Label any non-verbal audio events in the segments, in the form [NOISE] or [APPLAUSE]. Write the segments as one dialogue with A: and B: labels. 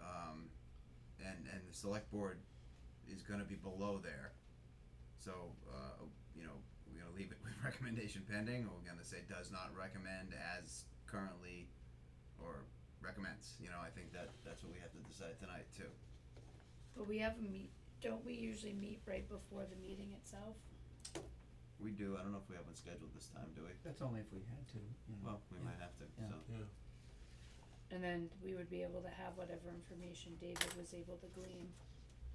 A: um, the select board is gonna be below there. So, uh, you know, we're gonna leave it with [LAUGHS] recommendation pending, or we're gonna say does not recommend as currently, or recommends, you know, I think that, that's what we have to decide tonight too.
B: But we have a meet, don't we usually meet right before the meeting itself?
A: We do, I don't know if we have one scheduled this time, do we?
C: That's only if we had to, you
A: Well,
C: know.
A: we might have to,
C: Yeah.
A: so,
D: Yeah.
B: And then we would be able to have whatever information David was able to glean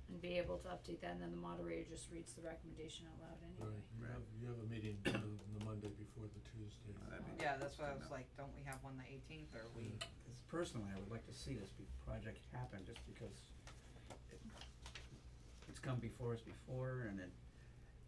B: and be able to update that, and then the moderator just reads the recommendation out loud
D: Right,
B: anyway.
D: you
A: Right.
D: have, you have a meeting the, the Monday before the Tuesday.
A: uh, that'd be,
E: Yeah, that's why I
A: Good
E: was
A: know.
E: like, don't we have one the eighteenth or we,
D: Yeah.
C: 'Cause personally, I would like to see this be, project happen, just because it, it's come before us before, and it,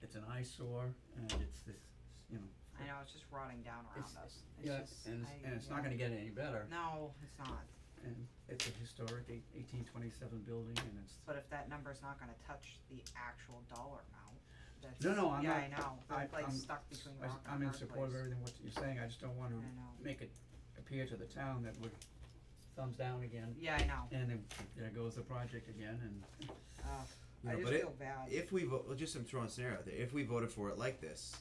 C: it's an eyesore, and it's this, you know.
E: I know, it's just rotting down around
C: It's-
E: us.
C: Yeah,
E: It's just,
C: and it's,
E: I-
C: and it's
E: yeah.
C: not gonna get any better,
E: No, it's not,
C: and it's a historic eight- 1827 building, and it's,
E: but if that number's not gonna touch the actual dollar amount, that's,
C: No, no, I'm
E: yeah, I
C: not-
E: know,
C: I-
E: I'm like
C: I'm-
E: stuck between
C: I s-
E: rock
C: I'm
E: and a
C: in
E: hard
C: support of
E: place.
C: everything what you're saying, I just don't wanna
E: I know,
C: make it appear to the town that we're thumbs down again,
E: yeah, I know,
C: and then there goes the project again, and
E: uh,
A: You
E: I
A: know,
E: just
A: but it-
E: feel bad,
A: If we vote, well, just some throwing a scenario out there. If we voted for it like this,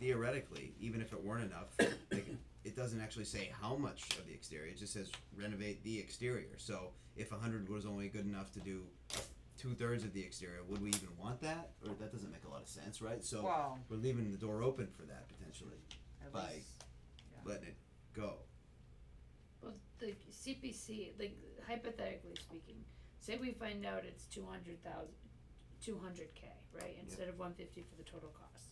A: theoretically, even if it weren't enough, [COUGHS] like, it doesn't actually say how much of the exterior. It just says renovate the exterior. So if a hundred was only good enough to do two thirds of the exterior, would we even want that? Or that doesn't make a lot of sense, right? So
E: well,
A: we're leaving the door open for that potentially,
E: at
A: by-
E: least,
A: letting it go.
B: Well, the CPC, like hypothetically speaking, say we find out it's two hundred thousand, two hundred K, right, instead of one fifty for the total cost.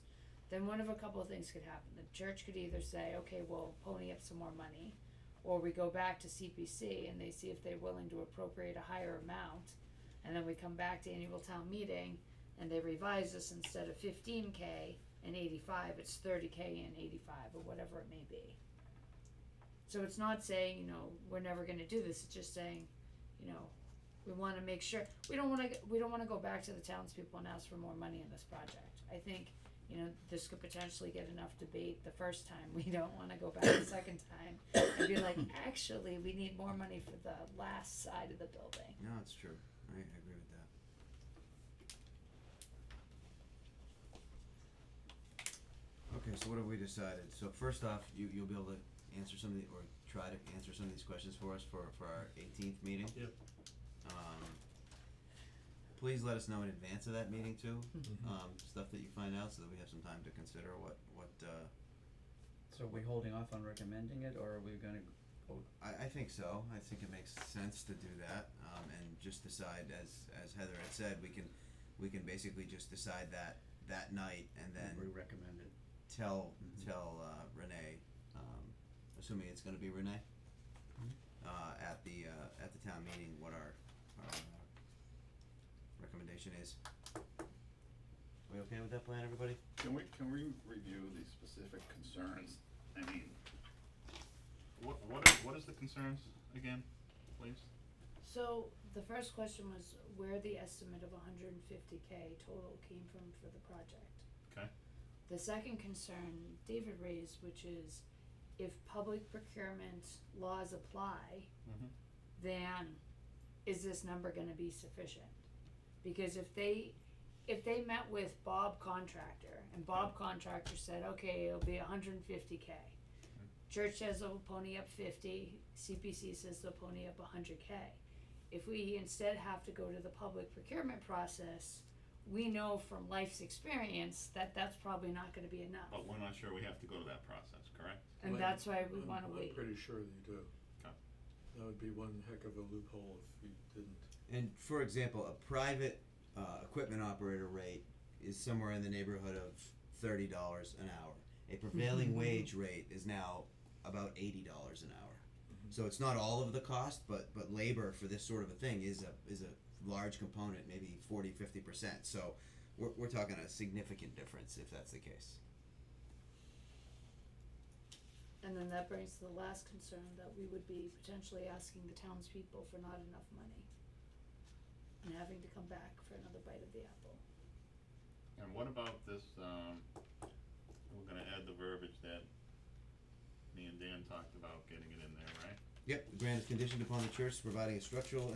B: Then one of a couple of things could happen, the church could either say, okay, we'll pony up some more money, or we go back to CPC and they see if they're willing to appropriate a higher amount. And then we come back to annual town meeting and they revise this instead of fifteen K and eighty-five, it's thirty K and eighty-five, or whatever it may be. So it's not saying, you know, we're never gonna do this, it's just saying, you know, we wanna make sure, we don't wanna, we don't wanna go back to the townspeople and ask for more money in this project. I think, you know, this could potentially get enough debate the first time, [LAUGHS] we don't wanna go back the second time and be like, actually, we need more money for the last side of the building.
A: No, it's true. I, I agree with that. Okay, so what have we decided? So first off, you, you'll be able to answer some of the, or try to answer some of these questions for us for, for our eighteenth meeting?
D: Yep.
A: Um, please let us know in advance of that meeting too,
D: Mhm.
A: um, stuff that you find out so that we have some time to consider what, what, uh,
C: So are we holding off on recommending it, or are we gonna,
A: I, I think so. I think it makes sense to do that, um, and just decide as, as Heather had said, we can, we can basically just decide that, that night and
C: we
A: then
C: recommend it?
A: tell,
C: Mhm.
A: tell, uh, Renee, um, assuming it's gonna be Renee,
C: Mhm.
A: uh, at the, uh, at the town meeting, what our, our uh, recommendation is. We okay with that plan, everybody?
F: Can we, can we review the specific concerns? I mean, what, what, are- what is the concerns again, please?
B: So the first question was where the estimate of hundred and fifty K total came from for the project.
F: Okay.
B: The second concern David raised, which is if public procurement laws apply,
F: Mhm.
B: then is this number gonna be sufficient? Because if they, if they met with Bob Contractor and Bob Contractor said, okay, it'll be hundred and fifty K. Church says they'll pony up fifty, CPC says they'll pony up hundred K. If we instead have to go to the public procurement process, we know from life's experience that that's probably not gonna be enough.
F: But we're not sure we have to go to that process, correct?
B: And
D: Well,
B: that's why we
D: I'm-
B: wanna wait.
D: I'm pretty sure you do.
F: Okay.
D: That would be one heck of a loophole if you didn't.
A: And for example, a private uh, equipment operator rate is somewhere in the neighborhood of thirty dollars an hour. A prevailing wage rate is now about eighty dollars an hour. So it's not all of the cost, but but labor for this sort of a thing is a is a large component, maybe 40 50 percent. So we're, we're talking a significant difference if that's the case.
B: And then that brings to the last concern that we would be potentially asking the townspeople for not enough money. And having to come back for another bite of the apple.
F: And what about this, um, we're gonna add the verbiage that me and Dan talked about getting it in there, right?
A: Yep, the grant is conditioned upon the church providing a structural